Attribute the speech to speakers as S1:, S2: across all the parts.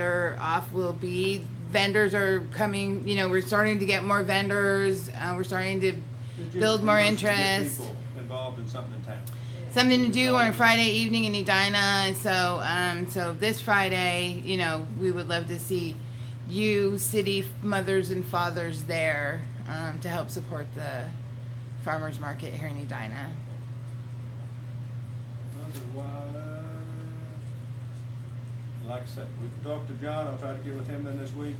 S1: better off we'll be. Vendors are coming, you know, we're starting to get more vendors. Uh, we're starting to
S2: It just
S1: build more
S2: promotes to get
S1: interest.
S2: people Involved in something in town.
S1: Something to do on Friday evening in Edina. And so, um, so this Friday, you know, we would love to see you, city mothers and fathers there um, to help support the farmers market here in Edina.
S2: Otherwise, Like I said, we talked to John, I'll try to get with him then this week.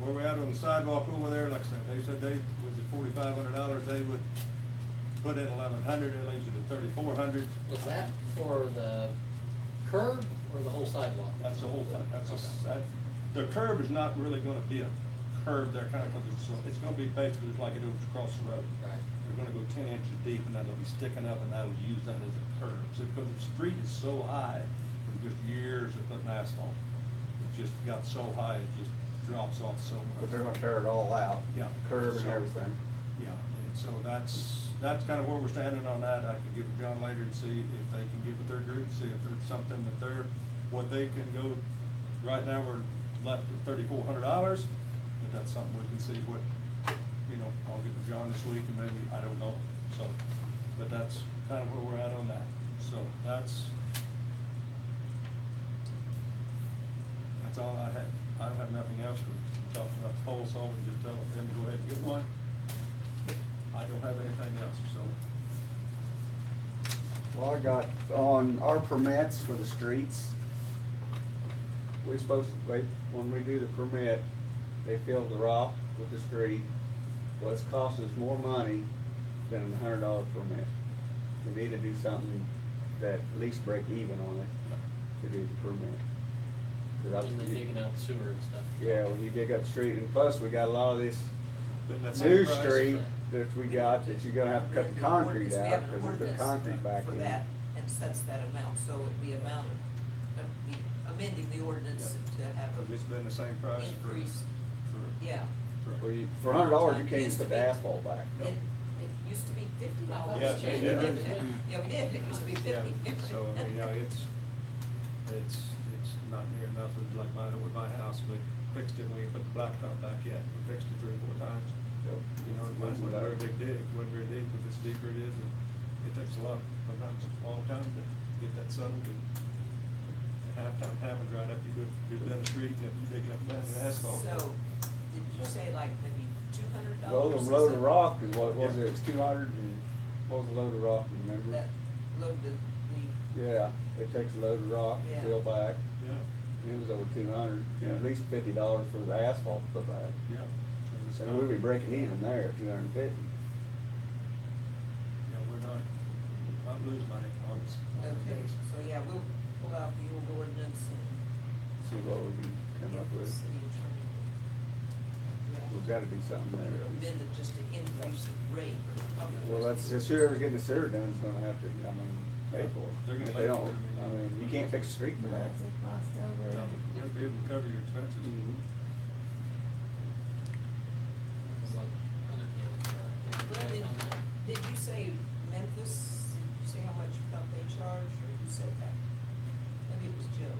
S2: Where we at on the sidewalk over there, like I said, they said they, with the forty-five hundred dollars, they would put in eleven hundred, it leaves it at thirty-four hundred.
S3: Was that for the curb or the whole sidewalk?
S2: That's the whole thing, that's, a- that, the curb is not really gonna be a curb there, kinda, cause it's, it's gonna be basically like it was across the road.
S3: Right.
S2: They're gonna go ten inches deep and that'll be sticking up and that'll use that as a curb. So, cause the street is so high, from just years of putting asphalt, it just got so high, it just drops off so much.
S4: But they're gonna tear it all out.
S2: Yeah.
S4: Curb and
S2: So-
S4: everything.
S2: Yeah, and so that's, that's kind of where we're standing on that. I can get with John later and see if they can get with their group, see if there's something that they're, what they can go. Right now, we're left with thirty-four hundred dollars, but that's something we can see what, you know, I'll get with John this week and maybe, I don't know, so. But that's kind of where we're at on that. So that's, that's all I had. I don't have nothing else. We talked about the pole saw, we just tell them to go ahead and get one. I don't have anything else, so.
S4: Well, I got on our permits for the streets. We're supposed to, wait, when we do the permit, they fill the rock with the street. Well, it's costing us more money than a hundred dollar permit. We need to do something that at least break even on it to do the permit. 'Cause I-
S3: And then digging out sewer and stuff.
S4: Yeah, when you dig up the street, and plus, we got a lot of this
S2: but that's
S4: new
S2: the price.
S4: street that we got, that you're gonna have to cut the concrete out, because we put concrete back
S5: For
S4: in.
S5: that, and sets that amount, so it'd be amount of, of the- amending the ordinance to have
S2: But It's
S5: a,
S2: been the same price for,
S5: Increase.
S2: for,
S5: yeah.
S4: Well,
S2: for.
S4: you, for a hundred dollars, you can't even put the asphalt back.
S5: It, it used to be fifty dollars.
S2: Yeah,
S3: yeah.
S5: Yeah, we did, it used to be
S2: Yeah,
S5: fifty.
S2: So, I mean, you know, it's, it's, it's not near enough, it's like mine with my house, we fixed it, we put the blacktop back yet, we fixed it three or four times. You know, it wasn't a very big dig, wasn't very deep, but it's deeper it is, and it takes a lot, sometimes a long time to get that settled. and Halftime happens right after you go, you're down the street, and if you dig it up, that's asphalt.
S5: So, did you say like maybe two hundred
S4: Load
S5: dollars?
S4: of, load of rock is what, was it, it's two hundred and, what was the load of rock, you remember?
S5: That, load the, the,
S4: Yeah, it takes a load of rock,
S5: Yeah.
S4: fill back,
S2: Yeah.
S4: it was over two hundred,
S2: Yeah.
S4: at least fifty dollars for the asphalt to put back.
S2: Yeah. And it's
S4: So
S2: not-
S4: we'd be breaking even there at two hundred and fifty.
S2: Yeah, we're not, I'm losing money on this.
S5: okay, so yeah, we'll pull out the old ordinance
S4: See what we can
S5: and.
S4: come up
S5: get the
S4: with.
S5: city attorney.
S4: We've gotta do something there. at
S5: Amend
S4: least.
S5: it just to increase the rate.
S4: Well, that's, it's whoever's getting the sewer done is gonna have to, I mean, pay for it.
S2: They're gonna
S4: If
S2: pay
S4: They
S2: for
S4: don't,
S2: it.
S4: I mean, you can't fix the street for that.
S2: You're gonna be able to cover your expenses.
S3: It's like 100 yards, uh,
S5: Well,
S3: on that.
S5: Did did you say Memphis, did you say how much you thought they charged, or you said that? Maybe it was Joe.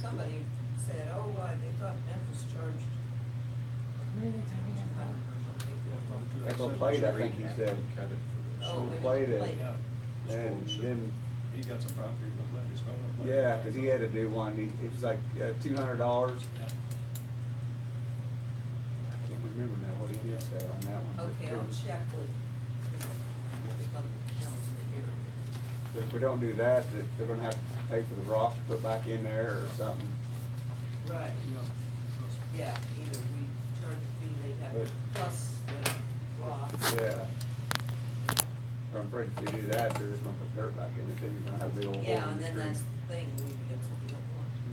S5: Somebody said, oh, why, they thought Memphis charged two hundred or something.
S4: That's on plate, I think he said.
S5: Oh,
S4: She
S5: wait,
S4: played it,
S5: wait.
S2: Yeah.
S4: and then,
S2: He got some property, but let his phone. up.
S4: yeah, cause he had to do one, he, it was like, uh, two hundred dollars.
S2: Yeah.
S4: I can't remember now what he did say on that one.
S5: Okay, I'll check with, with the council here.
S4: If we don't do that, th- they're gonna have to pay for the rocks to put back in there or something.
S5: Right, yeah, either we charge a fee, they have, plus the law.
S4: Yeah. I'm afraid if they do that, they're just gonna put dirt back in it, then you're gonna have the old. hole
S5: Yeah,
S4: in
S5: and
S4: the
S5: then
S4: street.
S5: that's the thing, we, that's what we don't want.
S4: We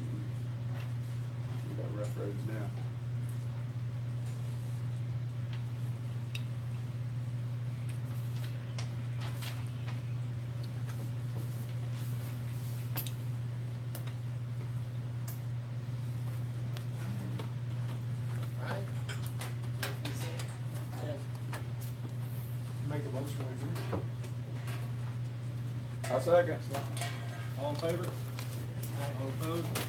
S4: Mm-hmm. got rough roads now.
S3: Right?
S2: Make a motion, would
S4: I second.
S2: you? All in favor? All opposed?